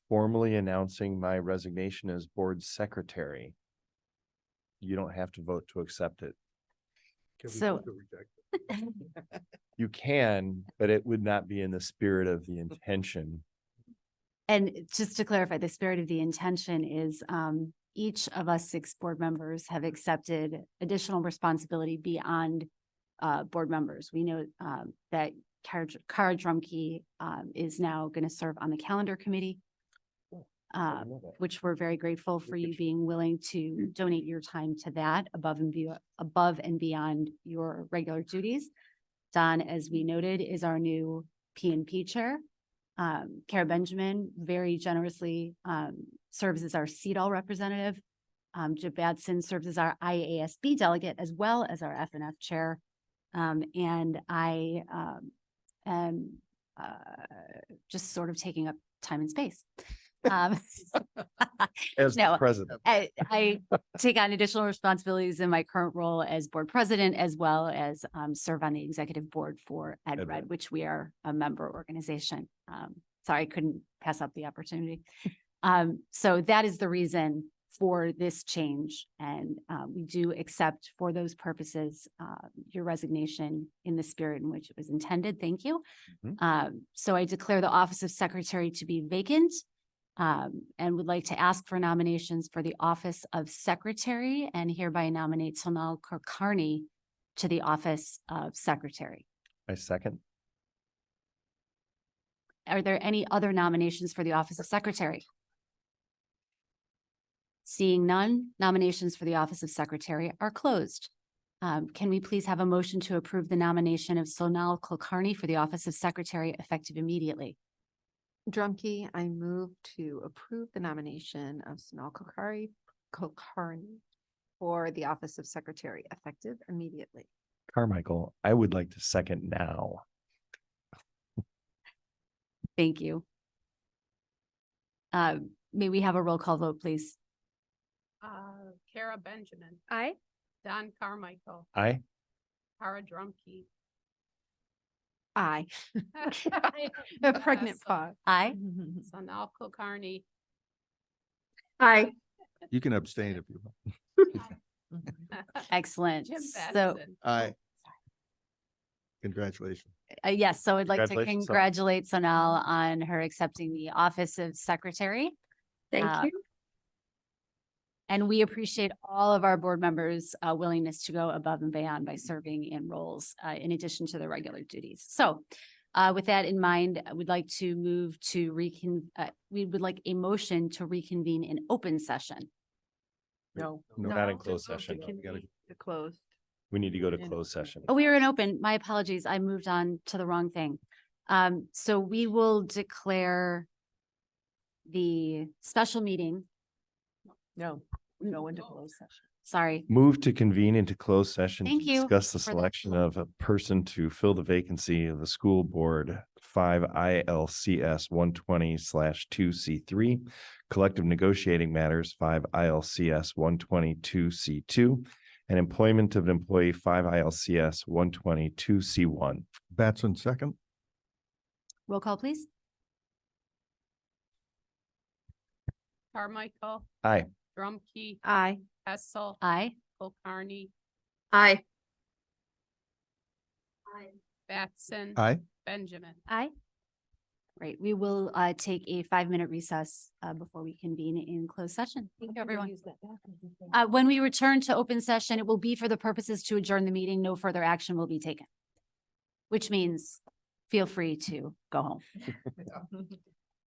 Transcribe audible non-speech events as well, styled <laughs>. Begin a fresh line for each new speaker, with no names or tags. formally announcing my resignation as board secretary. You don't have to vote to accept it.
Can we vote So- to <laughs>
You can, but it would not be in the spirit of the intention.
And just to clarify, the spirit of the intention is um each of us six board members have accepted additional responsibility beyond uh board members. We know um that Kara Dr- Kara Drumkey um is now going to serve on the calendar committee. Uh, which we're very grateful for you being willing to donate your time to that above and be above and beyond your regular duties. Don, as we noted, is our new P and P Chair. Um, Kara Benjamin very generously um serves as our CEDAL representative. Um, Jim Batson serves as our IASB delegate as well as our FNF Chair. Um, and I um am uh just sort of taking up time and space. Um,
As the
No.
president,
I, I take on additional responsibilities in my current role as board president, as well as um, serve on the executive board for
Ed Red.
EdRed, which we are a member organization. Um, sorry, I couldn't pass up the opportunity. Um, so that is the reason for this change. And uh, we do accept for those purposes, uh, your resignation in the spirit in which it was intended. Thank you.
Mhm.
Um, so I declare the office of secretary to be vacant um, and would like to ask for nominations for the office of secretary and hereby nominate Sonal Kulkarni to the office of secretary.
I second.
Are there any other nominations for the office of secretary? Seeing none, nominations for the office of secretary are closed. Um, can we please have a motion to approve the nomination of Sonal Kulkarni for the office of secretary effective immediately?
Drumkey, I move to approve the nomination of Sonal Kokari, Kokarni for the office of secretary effective immediately.
Carmichael, I would like to second now.
Thank you. Uh, may we have a roll call vote, please?
Uh, Kara Benjamin,
Aye.
Don Carmichael,
I,
Kara Drumkey.
Aye. <laughs>
<laughs>
A pregnant pause.
Aye.
Sanal Kulkarni.
Aye.
You can abstain if you want.
<laughs> Excellent.
Jim
So,
Batson.
Aye. Congratulations.
uh, yes, so I'd like to
Congratulations, Sonal.
congratulate Sonal on her accepting the office of secretary. Uh,
Thank you.
And we appreciate all of our board members' uh, willingness to go above and beyond by serving in roles uh, in addition to their regular duties. So uh, with that in mind, I would like to move to recon, uh, we would like a motion to reconvene in open session.
No.
No, not in closed session.
We gotta-
Closed.
we need to go to
In
closed
open.
session.
Oh, we were in open. My apologies. I moved on to the wrong thing. Um, so we will declare the special meeting,
No, go into closed session.
sorry,
Move to convene into closed session. to
Thank you
Discuss the
for the-
selection of a person to fill the vacancy of the school board, five ILCS one twenty slash two C three. Collective negotiating matters, five ILCS one twenty two C two. And employment of an employee, five ILCS one twenty two C one.
Batson second,
roll call, please.
Carmichael.
Aye.
Drumkey,
Aye.
Hessel,
Aye.
Kulkarni,
Aye.
Batson.
aye.
Benjamin.
Aye. Right, we will uh take a five-minute recess uh before we convene in closed session. Thank you, everyone. Uh, when we return to open session, it will be for the purposes to adjourn the meeting. No further action will be taken. Which means feel free to go home.